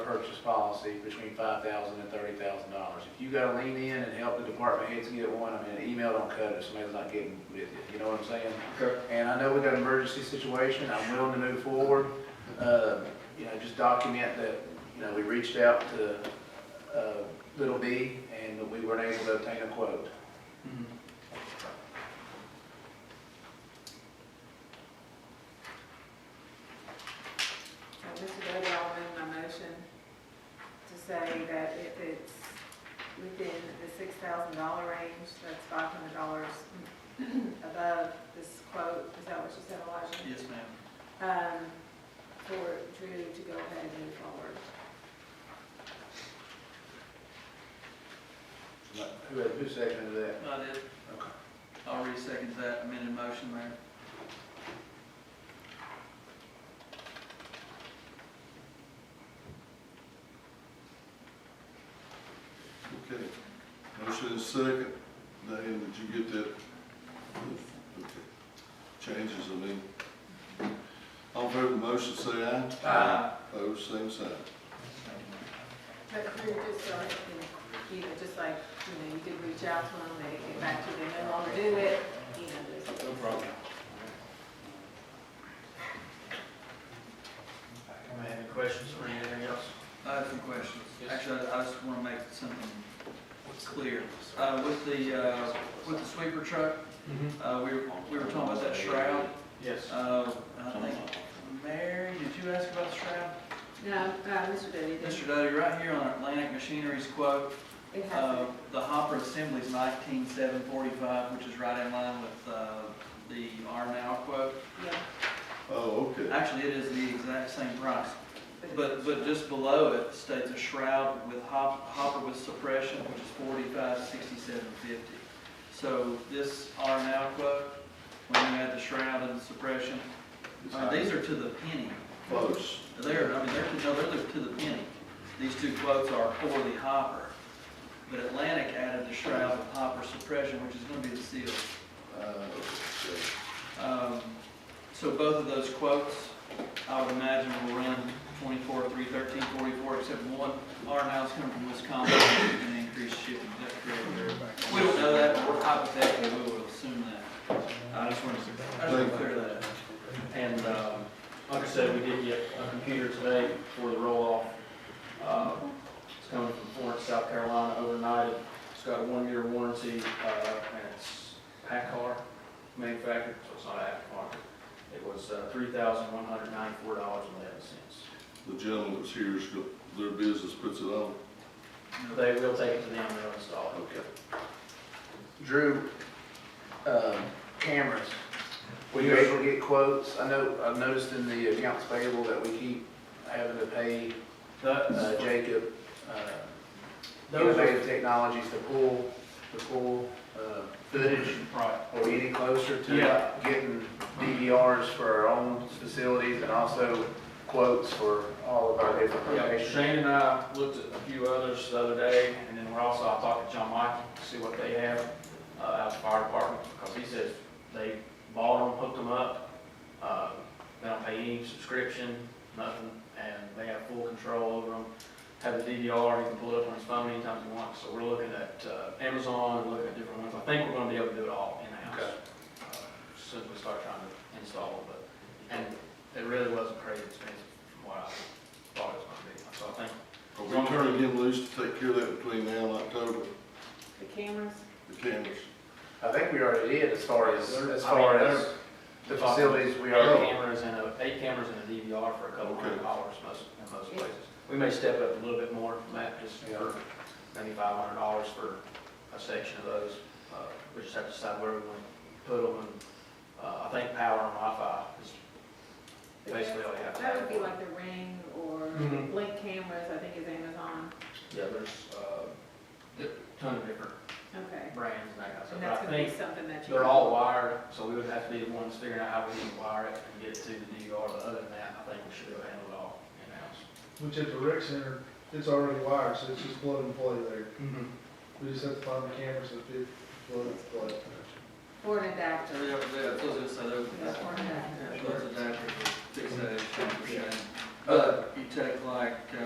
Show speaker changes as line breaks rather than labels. purchase policy between five thousand and thirty thousand dollars. If you gotta lean in and help the department heads get one, I mean, an email don't cut it, somebody's not getting with you, you know what I'm saying?
Okay.
And I know we got an emergency situation, I'm willing to move forward, uh, you know, just document that, you know, we reached out to, uh, Little B and that we weren't able to obtain a quote.
Mhm.
Now, Mr. Doty, I'll amend my motion to say that if it's within the six thousand dollar range, that's five hundred dollars above this quote, is that what you said, Elijah?
Yes, ma'am.
Um, for Drew to go ahead and move forward.
Who, who seconded that?
I did.
Okay.
I'll re-second that amended motion, Mayor.
Okay, motion is second, Diane, did you get that? Okay. Changes, I mean. All in favor of the motion, say aye.
Aye.
Opposed, same sign.
But Drew, just so, you know, just like, you know, you did reach out to them, they get back to you, they no longer do it, you know, there's
No problem.
Anyone have any questions for anything else?
I have some questions.
Yes.
Actually, I I just want to make something clear. Uh, With the, uh, with the sweeper truck,
Mm-hmm.
uh, we were, we were talking about that shroud.
Yes.
Uh, I think, Mary, did you ask about the shroud?
No, uh, Mr. Doty,
Mr. Doty, right here on Atlantic Machinery's quote,
it
uh,
has,
the hopper assembly's nineteen seven forty-five, which is right in line with uh, the R now quote.
yeah,
Oh, okay.
Actually, it is the exact same price.
but
But, but just below it states a shroud with hop, hopper with suppression, which is forty-five, sixty-seven, fifty. So this R now quote, when you add the shroud and the suppression,
It's
uh, these are to the penny.
Close.
They're, I mean, they're, to- no, they're to the penny. These two quotes are for the hopper. But Atlantic added the shroud with hopper suppression, which is gonna be the seal.
Uh, okay.
Um, So both of those quotes, I would imagine will run 24, 3, 13, 44, except one, our house coming from Wisconsin, and increased shipping, that's correct. We don't know that, but we're hypothetically, we will assume that. I just wanted to, I just wanted to clear that. up.
And, um, like I said, we did get a computer today for the roll-off. Uh, It's coming from Florence, South Carolina overnight. It's got a one-year warranty, uh, and it's Packard manufactured, so it's not aftermarket. It was uh, three thousand one hundred ninety-four dollars and eleven cents.
The gentleman that's here is, go- their business puts it on.
They will take it to them, they'll install it.
Okay.
Drew, um, cameras, were you able to get quotes? I know, I've noticed in the accounts payable that we keep having to pay uh,
That-
Jacob, uh,
Those are,
Innovative Technologies to pull, to pull, uh, footage.
right.
Are we any closer to
Yeah.
getting DVRs for our own facilities and also quotes for all of our different
Yeah,
locations?
Shane and I looked at a few others the other day, and then we're also, I talked to John Michael, to see what they have, uh, out of the fire department, because he says they bought them, hooked them up, uh, they don't pay any subscription, nothing, and they have full control over them. Have the DVR, he can pull it up on his phone anytime he wants, so we're looking at, uh, Amazon, and looking at different ones, I think we're gonna be able to do it all in-house.
Okay.
uh, as Soon as we start trying to install, but, and it really wasn't crazy expensive from what I thought it was gonna be. So I think,
Are we turning him loose to take care of that between now and October,
the cameras,
the cameras?
I think we already did as far as, as
I mean,
far
there's
as the facilities we
eight
are.
cameras and a, eight cameras and a DVR for a couple hundred dollars most, in most places. We may step up a little bit more from that, just for maybe five hundred dollars for a section of those. Uh, We just have to decide where we want to put them, and, uh, I think power and Wi-Fi is basically all you have to have.
that would be like the Ring or
Mhm.
Blink cameras, I think is Amazon,
Yeah, there's, uh, di- ton of different
okay.
brands and that kind of stuff.
And
But
that's
I
gonna be
think
something that you.
They're all wired, so we would have to be the ones figuring out how we can wire it and get it to the DVR, but other than that, I think we should have handled it all in-house.
Which at the rec center, it's already wired, so it's just plug and play there.
Mm-hmm.
We just have to find the cameras that fit, plug and play.
Or an adapter.
So, yeah, yeah, so it's- so
That's
they're-
one of them.
yeah, so it's adapted to fix that issue for Shane. But you take like, uh,